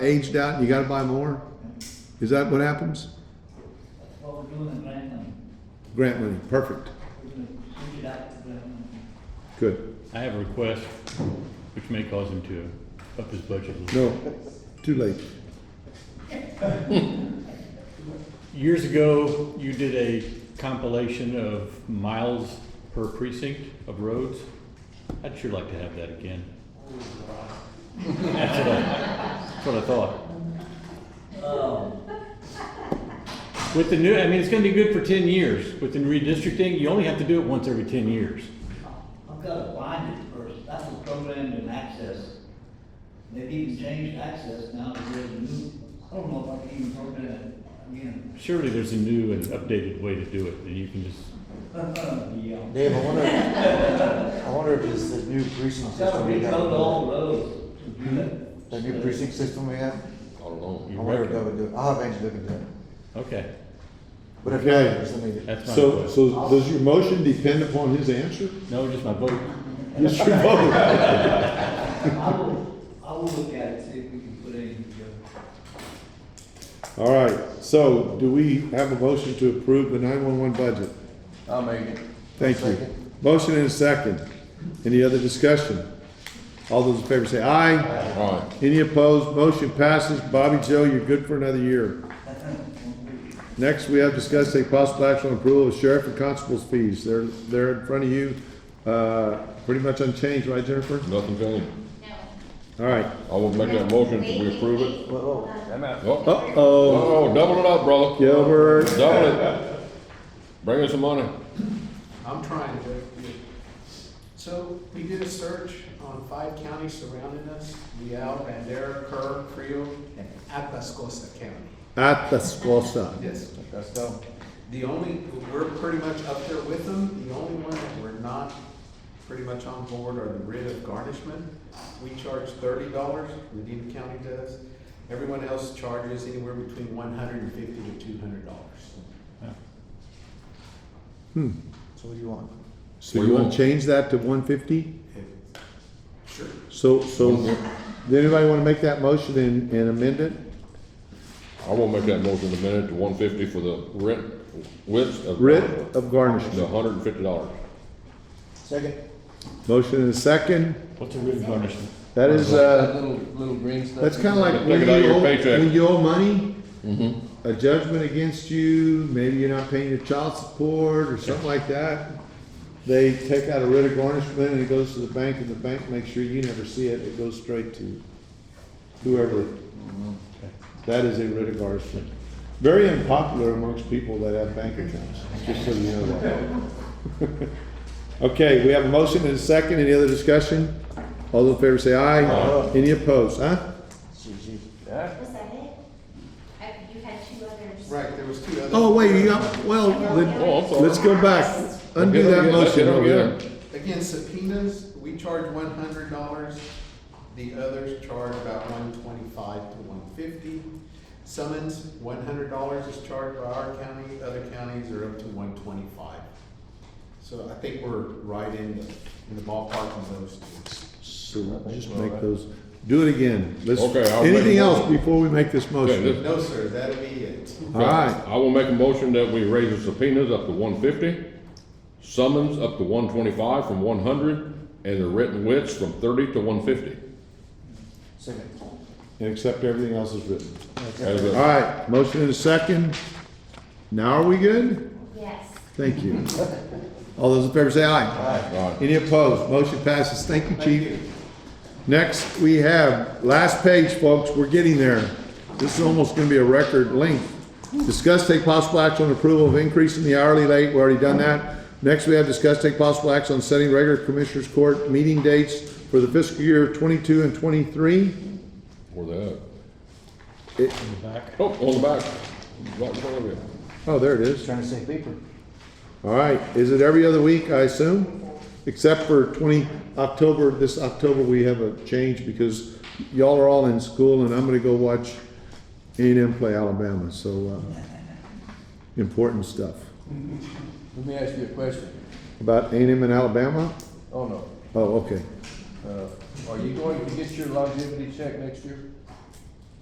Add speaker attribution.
Speaker 1: aged out and you gotta buy more? Is that what happens?
Speaker 2: What we're doing in grant money,
Speaker 1: Grant money, perfect,
Speaker 2: we're gonna switch it out to grant money.
Speaker 1: good.
Speaker 3: I have a request, which may cause him to up his budget a little.
Speaker 1: No, too late.
Speaker 3: Years ago, you did a compilation of miles per precinct of roads. I'd sure like to have that again. That's what I, that's what I thought.
Speaker 2: Oh,
Speaker 3: With the new, I mean, it's gonna be good for ten years. With the redistricting, you only have to do it once every ten years.
Speaker 2: I've gotta find it first, that was programmed in Access. They've even changed Access now to where the new, I don't know if I can even program it again.
Speaker 3: Surely there's a new and updated way to do it, and you can just,
Speaker 2: Yeah.
Speaker 4: Dave, I wonder, I wonder if it's the new precinct
Speaker 2: I've gotta
Speaker 4: system we
Speaker 2: recode
Speaker 4: have.
Speaker 2: all roads to do that.
Speaker 4: The new precinct system we have? I
Speaker 3: you
Speaker 4: wonder if that
Speaker 3: reckon?
Speaker 4: would do it. I'll have Angie look at that.
Speaker 3: Okay,
Speaker 4: But if
Speaker 1: Okay.
Speaker 4: not, something that-
Speaker 3: that's my
Speaker 1: So,
Speaker 3: request.
Speaker 1: so does your motion depend upon his answer?
Speaker 3: No, just my vote.
Speaker 1: Yes, your vote.
Speaker 2: I will, I will look at it, see if we can put anything together.
Speaker 1: All right, so do we have a motion to approve the nine-one-one budget?
Speaker 4: I'll make it.
Speaker 1: Thank you.
Speaker 4: Second.
Speaker 1: Motion and a second. Any other discussion? All those in favor say aye. Aye. Any opposed? Motion passes. Bobby Joe, you're good for another year. Next, we have discussed a possible action on approval of sheriff and constable's fees. They're, they're in front of you, uh, pretty much unchanged, right, Jennifer?
Speaker 5: Nothing changed.
Speaker 6: No.
Speaker 1: All right.
Speaker 5: I will make that motion if we approve it.
Speaker 6: Wait, wait,
Speaker 4: Whoa,
Speaker 6: hold on.
Speaker 5: Oh,
Speaker 1: Uh-oh,
Speaker 5: oh, double it up, brother.
Speaker 1: Gilbert.
Speaker 5: Double it. Bring us some money.
Speaker 7: I'm trying to. So we did a search on five counties surrounding us, Leal, Bandera, Kerr, Creo, and Atascosa County.
Speaker 1: at the Squasa.
Speaker 7: Yes.
Speaker 4: Let's go.
Speaker 7: The only, we're pretty much up there with them. The only one that we're not pretty much on board are the writ of garnishment. We charge thirty dollars, Medina County does. Everyone else charges anywhere between one hundred and fifty to two hundred dollars.
Speaker 4: So what do you want?
Speaker 1: So you wanna change that to one fifty?
Speaker 7: Sure.
Speaker 1: So, so, does anybody wanna make that motion and, and amend it?
Speaker 5: I will make that motion in a minute to one fifty for the rent, width of.
Speaker 1: Writ of
Speaker 5: The
Speaker 1: garnishment.
Speaker 5: hundred and fifty dollars.
Speaker 4: Second?
Speaker 1: Motion and a second.
Speaker 3: What's a written garnishment?
Speaker 1: That is,
Speaker 8: That
Speaker 1: uh,
Speaker 8: little, little green stuff.
Speaker 1: that's kinda like
Speaker 5: Take
Speaker 1: when
Speaker 5: it out of
Speaker 1: you
Speaker 5: your
Speaker 1: owe,
Speaker 5: paycheck.
Speaker 1: when you owe money,
Speaker 8: Mm-hmm.
Speaker 1: a judgment against you, maybe you're not paying your child support or something like that. They take out a writ of garnishment and it goes to the bank and the bank makes sure you never see it. It goes straight to whoever. That is a writ of garnishment. Very unpopular amongst people that have bank accounts, just so you know that. Okay, we have a motion and a second. Any other discussion? All those in favor say aye.
Speaker 4: Aye.
Speaker 1: Any opposed, huh?
Speaker 4: She, she,
Speaker 6: Was that it? I, you had two others.
Speaker 7: Right, there was two other.
Speaker 1: Oh, wait, you got, well, let-
Speaker 5: Oh, I'm sorry.
Speaker 1: let's go back. Undo
Speaker 5: Get it
Speaker 1: that
Speaker 5: again,
Speaker 1: motion
Speaker 5: get it
Speaker 1: over there.
Speaker 5: again.
Speaker 7: Again, subpoenas, we charge one hundred dollars, the others charge about one twenty-five to one fifty. Summons, one hundred dollars is charged by our county, other counties are up to one twenty-five. So I think we're right in the, in the ballpark of those two.
Speaker 1: So just make those, do it again. Let's,
Speaker 5: Okay, I'll make
Speaker 1: anything
Speaker 5: a
Speaker 1: else
Speaker 5: motion.
Speaker 1: before we make this motion?
Speaker 5: this-
Speaker 7: No, sir, that'll be it.
Speaker 1: All right,
Speaker 5: I will make a motion that we raise the subpoenas up to one fifty, summons up to one twenty-five from one hundred, and the written widths from thirty to one fifty.
Speaker 4: second.
Speaker 1: and accept everything else is written.
Speaker 5: As
Speaker 1: All
Speaker 5: a-
Speaker 1: right, motion and a second. Now are we good?
Speaker 6: Yes.
Speaker 1: Thank you. All those in favor say aye.
Speaker 5: all right.
Speaker 1: Any opposed? Motion passes. Thank you, chief. Next, we have, last page, folks, we're getting there. This is almost gonna be a record length. Discuss take possible action on approval of increase in the hourly rate, we already done that. Next, we have discuss take possible action on setting regular commissioners court meeting dates for the fiscal year twenty-two and twenty-three.
Speaker 5: Where they at?
Speaker 1: It-
Speaker 5: Oh, on the back. Right in front of you.
Speaker 1: Oh, there it is.
Speaker 4: Trying to say paper.
Speaker 1: All right, is it every other week, I assume? Except for twenty, October, this October, we have a change because y'all are all in school and I'm gonna go watch A and M play Alabama, so, uh, important stuff.
Speaker 8: Let me ask you a question.
Speaker 1: About A and M in Alabama?
Speaker 8: Oh, no.
Speaker 1: Oh, okay.
Speaker 8: Uh, are you going to get your longevity check next year?